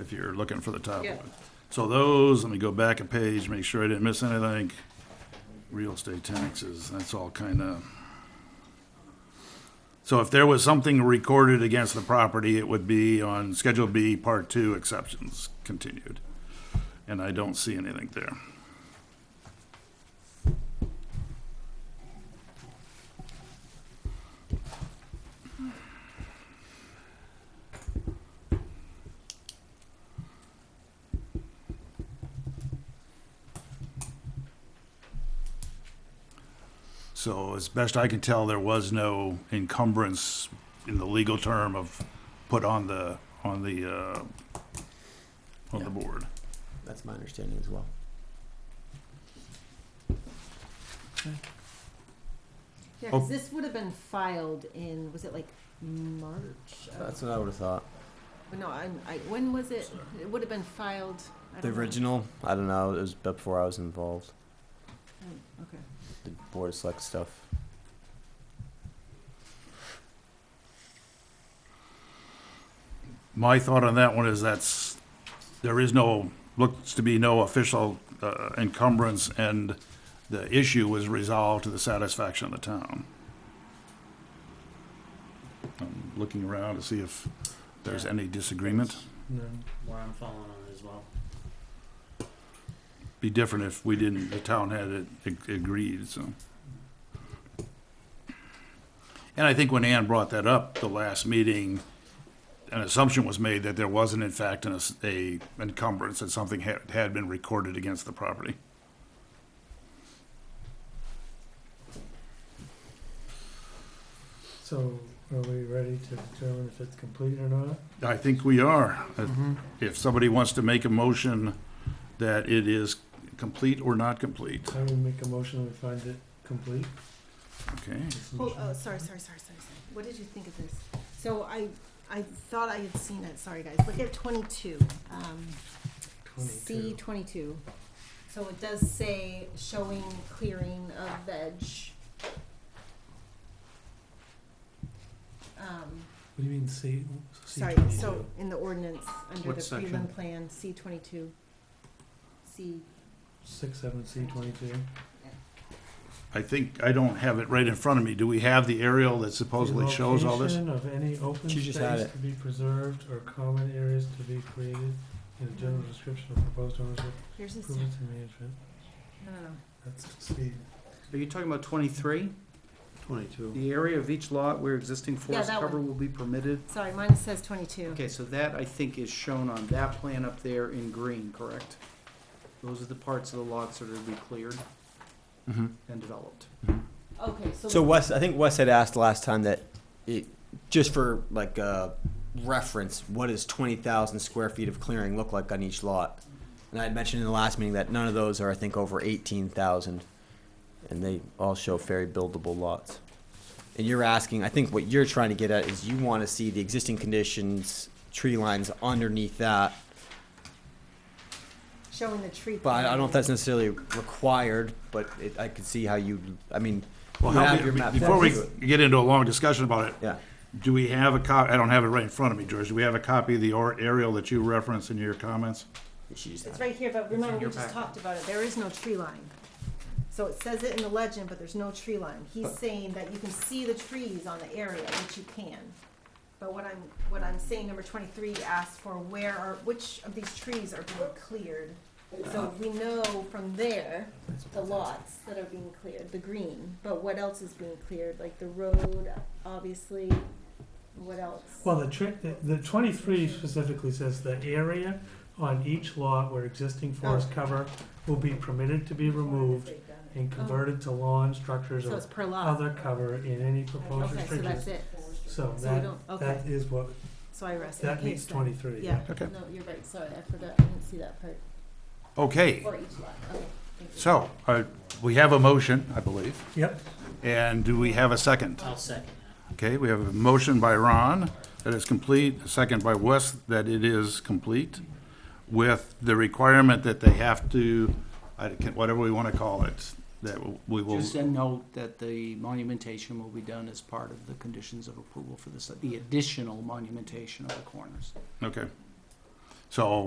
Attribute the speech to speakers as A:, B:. A: if you're looking for the top
B: Yeah.
A: one. So those, let me go back a page, make sure I didn't miss anything. Real estate taxes, that's all kind of. So if there was something recorded against the property, it would be on Schedule B, Part Two, exceptions continued. And I don't see anything there. So as best I can tell, there was no encumbrance in the legal term of put on the, on the, uh, on
C: Yeah.
A: the board.
C: That's my understanding as well.
B: Yeah,
A: Oh.
B: because this would have been filed in, was it like March? of- Oh,
C: That's what I would have thought.
B: No, I'm, I, when was it? It would have been filed. I
C: The
B: don't know.
C: original, I don't know, it was before I was involved.
B: Oh, Okay.
C: The board of select stuff.
A: My thought on that one is that's, there is no, looks to be no official uh, encumbrance, and the issue was resolved to the satisfaction of the town. I'm looking around to see if there's
D: Yeah.
A: any disagreement.
D: No, where I'm falling on as well.
A: Be different if we didn't, the town had it ag- agreed, so. And I think when Ann brought that up, the last meeting, an assumption was made that there wasn't in fact an, ass- a encumbrance, that something had, had been recorded against the property.
E: So are we ready to determine if it's complete or not?
A: I think we are.
E: Mm-hmm.
A: If somebody wants to make a motion that it is complete or not complete,
E: I will make a motion we find it complete.
A: okay?
E: this
B: Hold,
E: motion.
B: oh, sorry, sorry, sorry, sorry, sorry. What did you think of this? So I, I thought I had seen it. Sorry, guys. Look at twenty-two. Um, C
E: 22.
B: twenty-two. So it does say showing clearing of veg. Um,
E: What do you mean C? C
B: sorry, so
E: 22?
B: in the ordinance, under
D: What
B: the
D: section?
B: Cleveland plan, C twenty-two. C,
E: Six, seven, C twenty-two.
A: I think, I don't have it right in front of me. Do we have the aerial that supposedly shows all this?
E: Location of any open
C: She
E: space
C: just had
E: to be preserved or common areas to be created in a general description of proposed ownership,
B: here's this, no,
E: improvements and management.
B: no, no.
E: That's C.
D: Are you talking about twenty-three?
E: Twenty-two.
D: The area of each lot where existing forest
B: that
D: cover will be permitted?
B: Sorry, mine says twenty-two.
D: Okay, so that I think is shown on that plan up there in green, correct? Those are the parts of the lots that are to be cleared
C: Mm-hmm.
D: and developed.
B: Okay, so.
C: So Wes, I think Wes had asked last time that it, just for like uh, reference, what does twenty thousand square feet of clearing look like on each lot? And I had mentioned in the last meeting that none of those are, I think, over eighteen thousand, and they all show very buildable lots. And you're asking, I think what you're trying to get at is you want to see the existing conditions, tree lines underneath that.
B: Showing the tree.
C: But I I don't know
B: plan.
C: if that's necessarily required, but it, I could see how you, I mean, you
A: Well, how,
C: have your map.
A: before we
C: next to it.
A: get into a long discussion about it,
C: Yeah.
A: do we have a cop, I don't have it right in front of me, George. Do we have a copy of the or- aerial that you referenced in your comments?
C: She just
B: It's right here, but remember, we
D: your
B: just
D: packet.
B: talked about it, there is no tree line. So it says it in the legend, but there's no tree line. He's saying that you can see the trees on the area, which you can. But what I'm, what I'm saying, number twenty-three asked for where are, which of these trees are being cleared? So we know from there, the lots that are being cleared, the green, but what else is being cleared, like the road, obviously, what else?
E: Well, the trick, the, the twenty-three specifically says the area on each lot where existing forest
B: Oh.
E: cover will be permitted to be removed and converted to lawn structures
B: Oh. So
E: or
B: it's per lot,
E: other cover in any
B: okay,
E: proposed
B: so that's
E: restrictions.
B: it,
E: So
B: so we
E: that,
B: don't, okay,
E: that is what,
B: so I rest.
E: that
B: Okay,
E: meets
B: so-
E: twenty-three.
B: Yeah,
A: Okay.
B: no, you're right, sorry, I forgot, I didn't see that part,
A: Okay,
B: or each lot, okay, thank you.
A: so, uh, we have a motion, I believe,
E: Yep,
A: and do we have a second?
D: I'll second
A: Okay, we have a motion by Ron that it's complete, a second by Wes that it is complete, with the requirement that they have to, I can, whatever we want to call it, that we will,
D: Just a note that the monumentation will be done as part of the conditions of approval for this, the additional monumentation of the corners.
A: okay. So